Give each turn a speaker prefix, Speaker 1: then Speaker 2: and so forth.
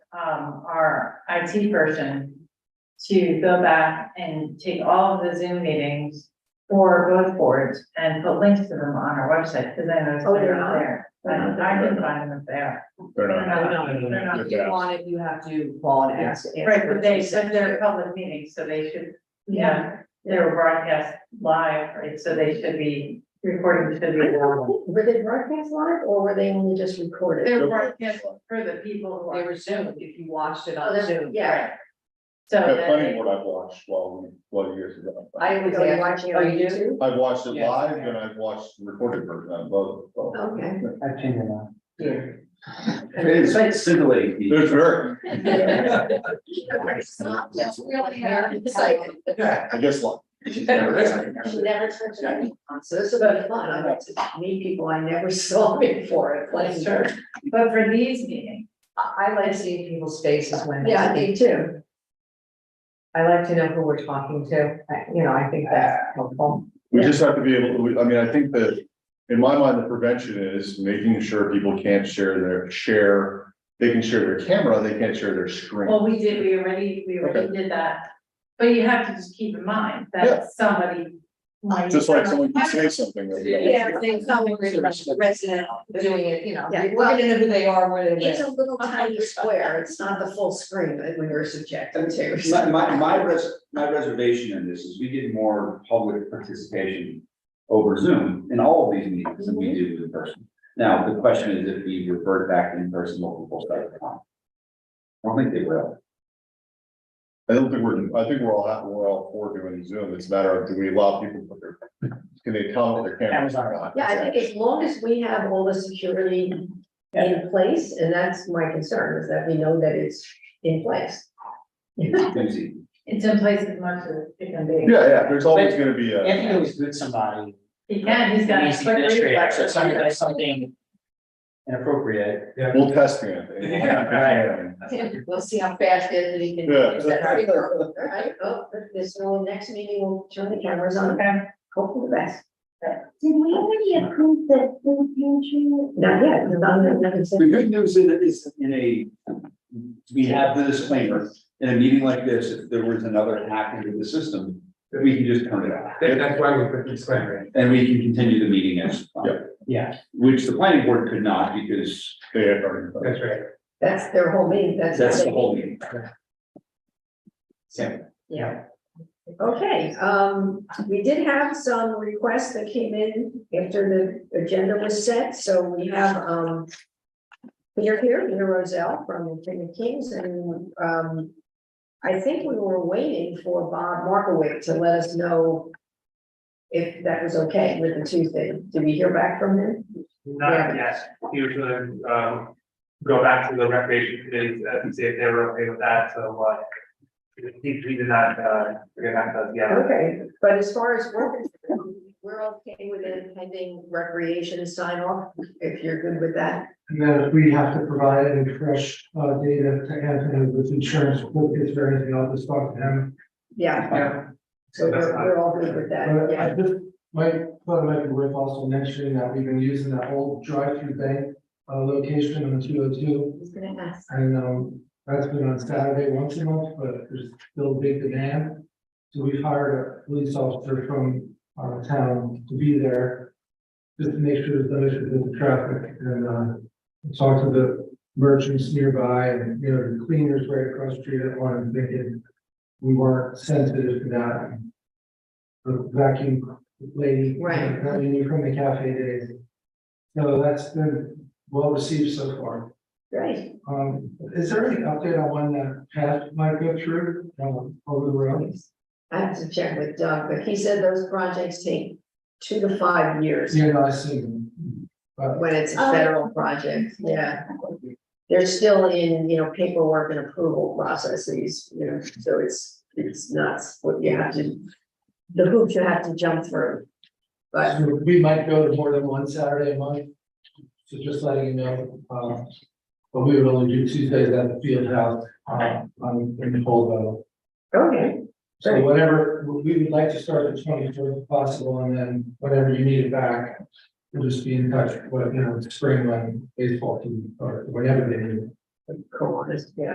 Speaker 1: um, our IT person to go back and take all of the Zoom meetings for both boards and put links to them on our website, because I noticed
Speaker 2: Oh,
Speaker 1: they're Uh-huh.
Speaker 2: they're
Speaker 1: not
Speaker 2: not?
Speaker 1: there. I I didn't find them there.
Speaker 3: They're not,
Speaker 1: They're not.
Speaker 3: Good
Speaker 2: If you
Speaker 3: job.
Speaker 2: want it, you have to call and ask.
Speaker 1: Right, but they said they're public meetings, so they should, you know, they were broadcast live, right, so they should be, recording should be.
Speaker 4: Were they broadcast live or were they only just recorded?
Speaker 1: They're broadcast for the people who
Speaker 2: They
Speaker 1: are.
Speaker 2: were Zoom, if you watched it
Speaker 4: Oh,
Speaker 2: on
Speaker 4: they're-
Speaker 2: Zoom.
Speaker 4: Yeah,
Speaker 1: So
Speaker 3: It's funny
Speaker 1: then,
Speaker 3: what I've watched while, we- while years ago.
Speaker 2: I was
Speaker 4: Are you watching it
Speaker 2: Oh,
Speaker 4: on
Speaker 2: you do?
Speaker 4: YouTube?
Speaker 3: I've watched it
Speaker 2: Yeah.
Speaker 3: live and I've watched the recorded version of both. so.
Speaker 4: Okay.
Speaker 5: I've seen it now.
Speaker 6: It's like scintillating.
Speaker 3: There's very,
Speaker 4: That's really hard. It's like,
Speaker 6: Yeah.
Speaker 3: I guess, like,
Speaker 6: She's never listening.
Speaker 4: you should never touch it. So this will be fun. I like to meet people I never saw before at Pleasant Church.
Speaker 1: but for these meetings,
Speaker 2: I, I like seeing people's faces when they
Speaker 4: Yeah,
Speaker 2: speak.
Speaker 4: me too.
Speaker 2: I like to know who we're talking to, I- you know, I think that's helpful.
Speaker 3: we just have to be able to, I mean, I think that, in my mind, the prevention is making sure people can't share their, share, they can share their camera, they can't share their screen.
Speaker 1: well, we did, we already, we already did that. But you have to just keep in mind
Speaker 3: Yeah.
Speaker 1: that somebody might.
Speaker 3: Just like someone can say something. that we don't-
Speaker 2: they come resident doing it, you know,
Speaker 4: Yeah.
Speaker 2: we're gonna know who they are, where they
Speaker 4: It's
Speaker 2: live.
Speaker 4: a little tiny square. It's not the full screen that we were subjected to.
Speaker 6: My, my, my res- my reservation in this is we did more public participation over Zoom in all of these meetings than we do in person. Now, the question is if we revert back in person, what people start to come. I don't think they will.
Speaker 3: I don't think we're, I think we're all, ha- we're all for doing Zoom. It's a matter of, do we allow people to put their, can they tell their camera?
Speaker 5: That was our-
Speaker 4: Yeah, I think as long as we have all the security in place, and that's my concern, is that we know that it's in place.
Speaker 6: Lucy,
Speaker 1: It's in place as much as it can be.
Speaker 3: Yeah, yeah, there's always gonna be a.
Speaker 5: I think it was good somebody.
Speaker 1: He can, he's got a
Speaker 5: Easy
Speaker 1: quick
Speaker 5: administrator,
Speaker 1: reflex.
Speaker 5: so somebody does something inappropriate.
Speaker 3: We'll test it.
Speaker 5: Yeah,
Speaker 4: We'll see how fast Anthony can.
Speaker 3: Yeah.
Speaker 4: use that. All right, oh, this, so next meeting, we'll turn the cameras on, hopefully the best.
Speaker 7: Did we already approve the food pantry?
Speaker 4: Not yet, no, no, no, no, it's-
Speaker 6: The good news is, is in a, we have the disclaimer, in a meeting like this, if there was another hack into the system, we can just turn it off.
Speaker 5: That's why we put this disclaimer in.
Speaker 6: And we can continue the meeting as,
Speaker 3: Yeah.
Speaker 5: Yeah,
Speaker 6: which the planning board could not because
Speaker 3: They had already done it.
Speaker 5: that's right.
Speaker 4: That's their whole meeting, that's.
Speaker 6: that's the whole meeting. Sam.
Speaker 4: Yeah. Okay, um, we did have some requests that came in after the agenda was set, so we have, um. Peter here, Peter Roselle from King of Kings, and, um. I think we were waiting for Bob Markowitz to let us know. If that was okay with the Tuesday, did we hear back from him?
Speaker 8: Not yet, usually, um, go back to the recreation committees and see if they were okay with that, so, uh. He, he did not, uh, get back to us yet.
Speaker 4: Okay, but as far as we're, concerned, we're okay with it pending recreation sign off, if you're good with that.
Speaker 9: And then if we have to provide any fresh uh data to Anthony with insurance, book is or anything, I'll just talk to him.
Speaker 4: Yeah,
Speaker 8: Yeah.
Speaker 4: so we're, we're all good with that,
Speaker 9: But
Speaker 4: yeah.
Speaker 9: I just, my thought might be worth also mentioning that we've been using that old drive-through bank uh location on two oh two.
Speaker 4: was gonna ask.
Speaker 9: And um, that's been on Saturday once a month, but there's still big demand. So we hired a police officer from uh town to be there. Just to make sure there's no issues with the traffic and uh, talk to the merchants nearby and, you know, the cleaners right across the street. I wanted to make it, we weren't sensitive to that. The vacuum lady.
Speaker 4: Right.
Speaker 9: That we knew from the cafe days. So that's been well received so far.
Speaker 4: Great,
Speaker 9: Um, is there any update on when that path might go through, um, over the road?
Speaker 4: I have to check with Doug, but he said those projects take two to five years
Speaker 9: You know, I see. But
Speaker 4: when it's a
Speaker 7: Oh.
Speaker 4: federal project, yeah. They're still in, you know, paperwork and approval processes, you know, so it's, it's nuts what you have to, the hoops you have to jump through. But
Speaker 9: so we might go to more than one Saturday a month, so just letting you know, um, but we would only do Tuesdays at the field house, um, on, in Colville.
Speaker 4: Okay,
Speaker 9: So whatever, we we would like to start the twenty-fourth if possible, and then whenever you need it back, we'll just be in touch, what, you know, spring when baseball can, or whenever they need it.
Speaker 4: cool, this- yeah.